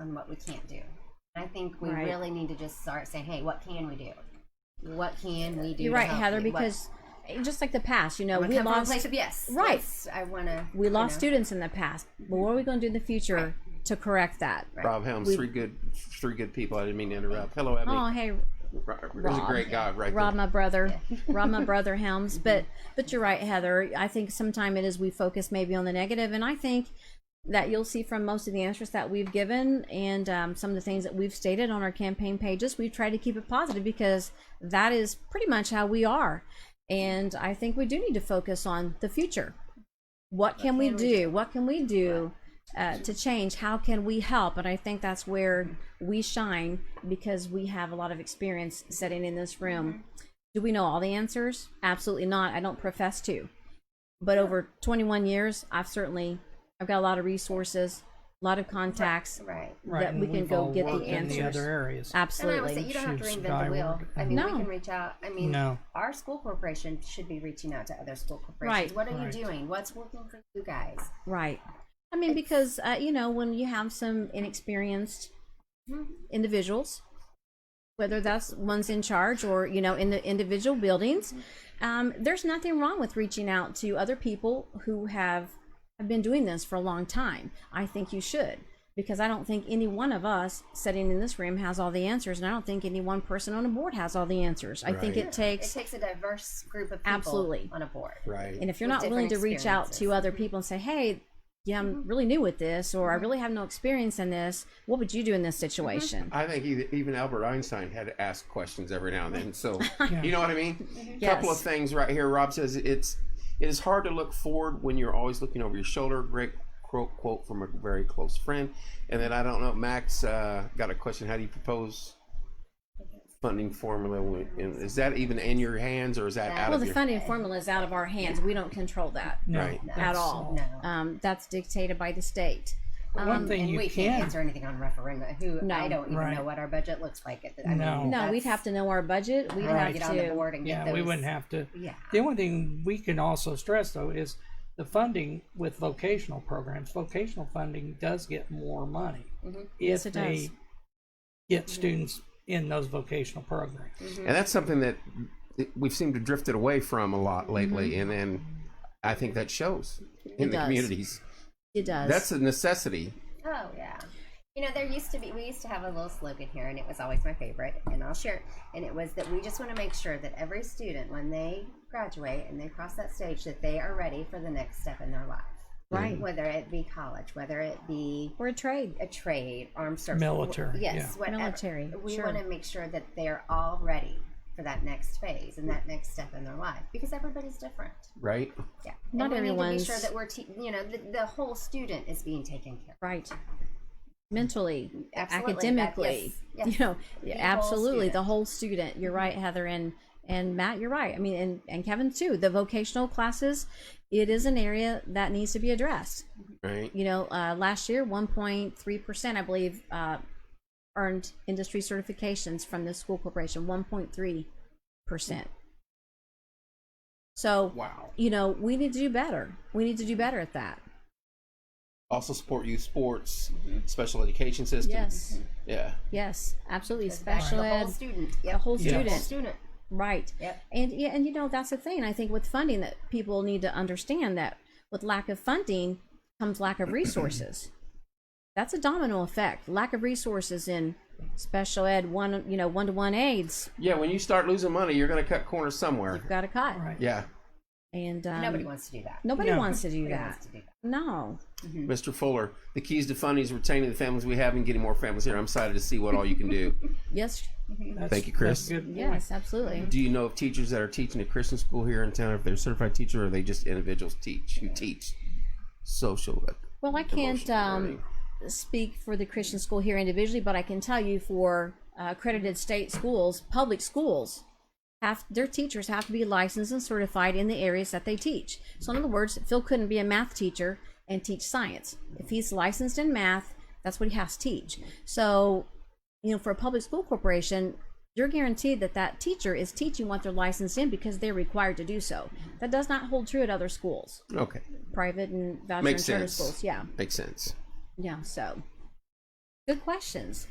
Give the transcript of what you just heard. on what we can't do. I think we Right. really need to just start saying, hey, what can we do? What can we do? You're to right, help Heather, you? What- because eh, just like the past, you know, I'm gonna we come from a lost place of yes. Right. Yes, I want to. we lost students in the past. But what are we going to do in the future to correct that? Rob Helms, three good, three good people. I didn't mean to interrupt. Hello, Emily. Oh, hey, Ro- There's a Rob. great guy right Rob, there. my brother, Rob, my brother Helms. But but you're right, Heather. I think sometime it is we focus maybe on the negative, and I think that you'll see from most of the answers that we've given and um, some of the things that we've stated on our campaign pages, we've tried to keep it positive because that is pretty much how we are. And I think we do need to focus on the future. What can, we, do? What can we do uh, to change? How can we help? And I think that's where we shine because we have a lot of experience sitting in this room. Do we know all the answers? Absolutely not. I don't profess to. But over 21 years, I've certainly I've got a lot of resources, a lot of contacts. Right. Right, that and we can we've go all get the worked in answers. other areas. And I would say Absolutely. you don't have to Shoot, reinvent the wheel. skyward. I mean, we No. can reach out. I mean, No. our school corporation should be reaching out to other school corporations. Right. What are Right. you doing? What's working for you guys? Right. I mean, because uh, you know, when you have some inexperienced individuals, whether that's ones in charge or you know in the individual buildings, um, there's nothing wrong with reaching out to other people who have have been doing this for a long time. I think you should because I don't think any one of us sitting in this room has all the answers, and I don't think any one person on a board has all the answers. I think Right. it takes It takes a diverse group of people Absolutely. on a board. Right. and if you're with not willing to different reach out to experiences. Mm-hmm. other people and say, hey, yeah, I'm really new with this, or I really have no experience in this, what would you do in this Mm-hmm. situation? I think e- even Albert Einstein had to ask questions every now and then. So you know what I mean. Couple of Yes. things right here. Rob says it's it is hard to look forward when you're always looking over your shoulder. Great quote quote from a very close friend. And then I don't know. Max uh, got a question. How do you propose funding formula? when- and Is that even in your hands or is that out Well, of the your funding formula is out of our hands. We don't control that No, Right. at that's- all. No. Um, that's dictated by the state. One thing and you we can can't answer anything on referenda. Who No. I don't even Right. know what our budget looks like. At the, I mean, No. No, that's- we'd have to know our budget. We'd I wanna have get on the to. board and get Yeah, those. we wouldn't have to. Yeah. The only thing we can also stress though is the funding with vocational programs. Vocational funding does get more money if Mm-hmm. Yes, it they does. Mm-hmm. get students in those vocational programs. And that's something that we've seemed to drifted away from a lot lately, and then I think that shows Mm-hmm. in It the does. communities. It does. That's a necessity. Oh yeah. You know, there used to be we used to have a little slogan here and it was always my favorite and I'll share it. And it was that we just want to make sure that every student when they graduate and they cross that stage that they are ready for the next step in their life. right. Whether it be college, whether it be We're a trade. a trade, armed service, Military, Yes, yeah. whatever. Military, We sure. want to make sure that they are all ready for that next phase and that next step in their life because everybody's different. Right. Yeah, Not and we need everyone's- to be sure that we're, te- you know, the, the whole student is being taken care. of. Right. Mentally, Absolutely, that- academically, yes, yes. you know, The whole absolutely, the student. Mm-hmm. whole student. You're right, Heather, and and Matt, you're right. I mean, and and Kevin too. The vocational classes, it is an area that needs to be addressed. Right. You know, uh, last year, 1.3 percent, I believe, uh, earned industry certifications from the school corporation. 1.3 percent. So, Wow. you know, we need to do better. We need to do better at that. Also support youth sports, special education system. Yes, Yeah. yes, absolutely. Goes back to Special the whole ed. student, yep. the whole Yeah. student. whole student. Right. Yep. And yeah, and you know that's the thing. I think with funding that people need to understand that with lack of funding comes lack of resources. that's a domino effect. Lack of resources in special ed one you know one to one aids. Yeah. When you start losing money, you're going to cut corners somewhere. You've got a cut. Right. Yeah. And um, Nobody wants to do that. nobody No. wants to do Nobody wants that. to do that. No. Mr. Fuller, the keys to funding is retaining the families we have and getting more families here. I'm excited to see what all you can do. Yes. That's- Thank you, Chris. that's a good point. Mm-hmm. Yes. Absolutely. do you know of teachers that are teaching at Christian school here in town? If they're certified teacher, or are they just individuals teach who teach social? uh, Well, I can't emotional um, learning? speak for the Christian school here individually, but I can tell you for uh, accredited state schools, public schools, have their teachers have to be licensed and certified in the areas that they teach. So, in other words, Phil couldn't be a math teacher and teach science. If he's licensed in math, that's what he has to teach. So, you know, for a public school corporation, you're guaranteed that that teacher is teaching what they're licensed in because they're required to do so. That does not hold true at other schools, Okay, private and voucher makes and charter sense. schools. Yeah. makes sense. Yeah, so good questions.